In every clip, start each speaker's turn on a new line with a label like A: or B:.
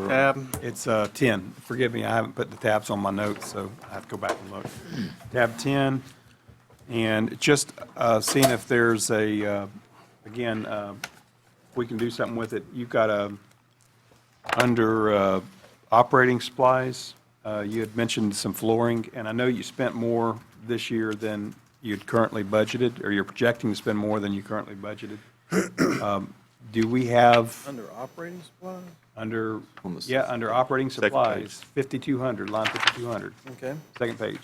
A: wrong.
B: tab, it's uh, 10. Forgive me, I haven't put the tabs on my notes, so I have to go back and look. Tab 10, and just uh, seeing if there's a, uh, again, uh, we can do something with it. You've got a, under uh, operating supplies, uh, you had mentioned some flooring, and I know you spent more this year than you'd currently budgeted, or you're projecting to spend more than you currently budgeted. Um, Do we have?
C: Under operating supplies?
B: Under,
A: On the s-
B: yeah, under operating
A: Second page.
B: supplies, 5,200, line 5,200,
C: Okay.
B: second page.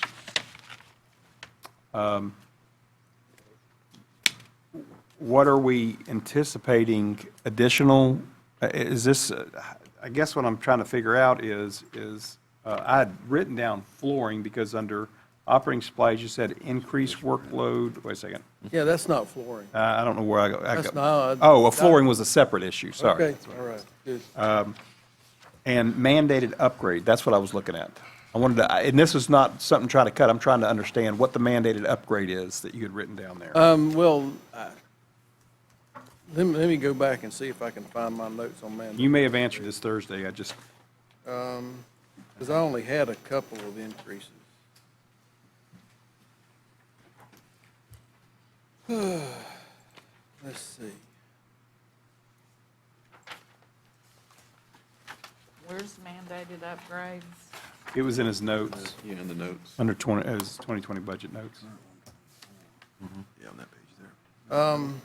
B: Um, What are we anticipating additional, i- is this, uh, I guess what I'm trying to figure out is, is, uh, I had written down flooring because under operating supplies, you said increased workload, wait a second,
C: Yeah, that's not flooring.
B: Uh, I don't know where I go. I
C: That's
B: go-
C: not-
B: Oh, well, flooring was a separate issue, sorry.
C: Okay, all right, Uh, good.
B: And mandated upgrade, that's what I was looking at. I wanted to, I- and this is not something trying to cut, I'm trying to understand what the mandated upgrade is that you had written down there.
C: Um, well, I- let me, let me go back and see if I can find my notes on
B: You
C: man,
B: may have answered this Thursday, I just,
C: because I only had a couple of increases. Let's see.
D: Where's mandated upgrades?
B: it was in his notes,
A: Yeah, in the notes.
B: under 20, it was 2020 budget notes.
A: Yeah, on that page there.
C: Um,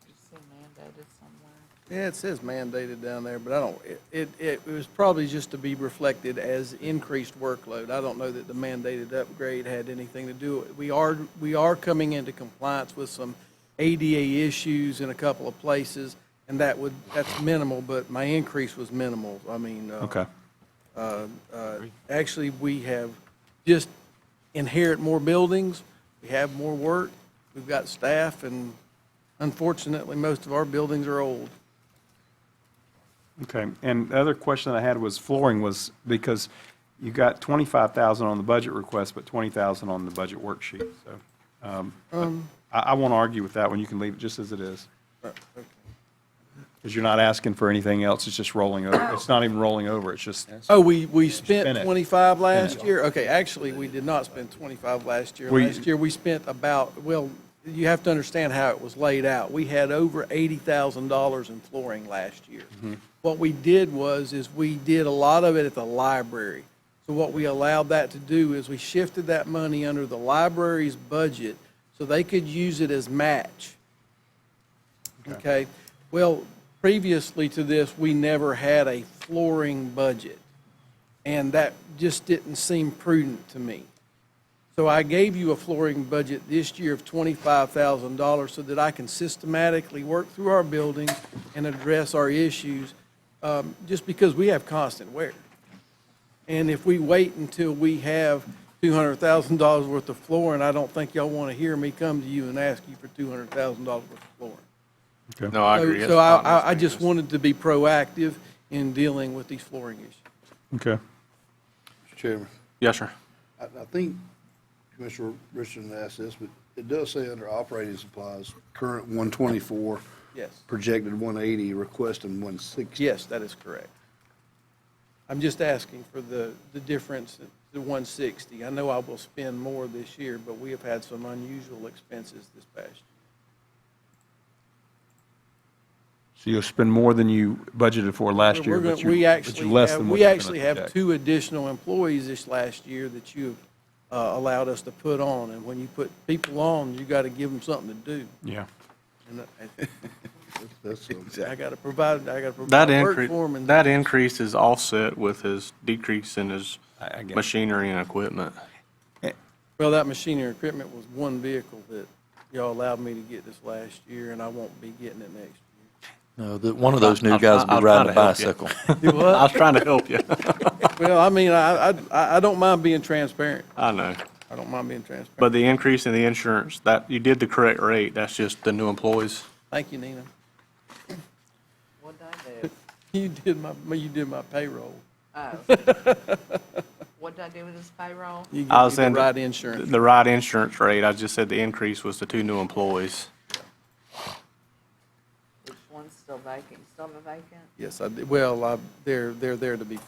D: Did you see mandated somewhere?
C: yeah, it says mandated down there, but I don't, it, it, it was probably just to be reflected as increased workload. I don't know that the mandated upgrade had anything to do, with it. we are, we are coming into compliance with some ADA issues in a couple of places, and that would, that's minimal, but my increase was minimal. I mean, uh,
B: Okay,
C: uh, uh, Actually, we have just inherit more buildings, we have more work, we've got staff, and unfortunately, most of our buildings are old.
B: okay. And the other question I had was flooring was, because you got 25,000 on the budget request, but 20,000 on the budget worksheet, so. um, I, I won't argue with that one, you can leave it just as it is.
C: uh,
B: Because you're not asking for anything else, it's just rolling over. It's not even rolling over, it's just,
C: Oh, we, we
B: Spin
C: spent
B: it.
C: 25 last year? Okay, actually, we did not spend 25 last year.
B: We-
C: Last year, we spent about, well, you have to understand how it was laid out. We had over $80,000 in flooring last year. What we did was, is we did a lot of it at the library. So what we allowed that to do is we shifted that money under the library's budget so they could use it as match. Okay, well, previously to this, we never had a flooring budget, and that just didn't seem prudent to me. So I gave you a flooring budget this year of twenty-five thousand dollars so that I can systematically work through our buildings and address our issues, um, just because we have constant wear. And if we wait until we have two hundred thousand dollars worth of flooring, I don't think y'all want to hear me come to you and ask you for two hundred thousand dollars worth of flooring.
E: No, I
C: So-
E: agree.
C: So I, I- I just wanted to be proactive in dealing with these flooring issues.
B: okay.
F: Mr. Chairman,
E: Yes, sir.
F: I, I think Commissioner Richardson asked this, but it does say under operating supplies, current one twenty-four,
C: Yes.
F: projected one eighty, requesting one sixty.
C: Yes, that is correct. I'm just asking for the, the difference, the 160. I know I will spend more this year, but we have had some unusual expenses this past year.
B: So you'll spend more than you budgeted for last year,
C: We're
B: but
C: gonna-
B: you,
C: We
B: but
C: actually
B: you less
C: have-
B: than what
C: We
B: you're gonna
C: actually have
B: project.
C: two additional employees this last year that you have uh, allowed us to put on. And when you put people on, you got to give them something to do.
B: Yeah.
C: And I-
F: That's, um,
C: I got to provide, I got to
E: That
C: provide work for them.
E: increase, that increase is offset with his decrease in his
B: I- I get it.
E: machinery and equipment.
C: Well, that machinery and equipment was one vehicle that y'all allowed me to get this last year, and I won't be getting it next year.
G: No, that one of those new
E: I'll-
G: guys will
E: I'll
G: be
E: try
G: riding a
E: to help you.
G: bicycle.
C: Do
E: I was
C: what?
E: trying to help you.
C: Well, I mean, I, I, I don't mind being transparent.
E: I know.
C: I don't mind being transparent.
E: But the increase in the insurance, that, you did the correct rate. That's just the new employees.
C: Thank you, Nina.
D: What'd I do?
C: You did my, you did my payroll.
D: Oh. What'd I do with this payroll?
C: You gave
E: I
C: me
E: was
C: the
E: in.
C: right insurance.
E: The right insurance rate. I just said the increase was the two new employees.
D: Which one's still vacant, still have a vacant?
C: Yes, I, did. well, I- they're, they're there to be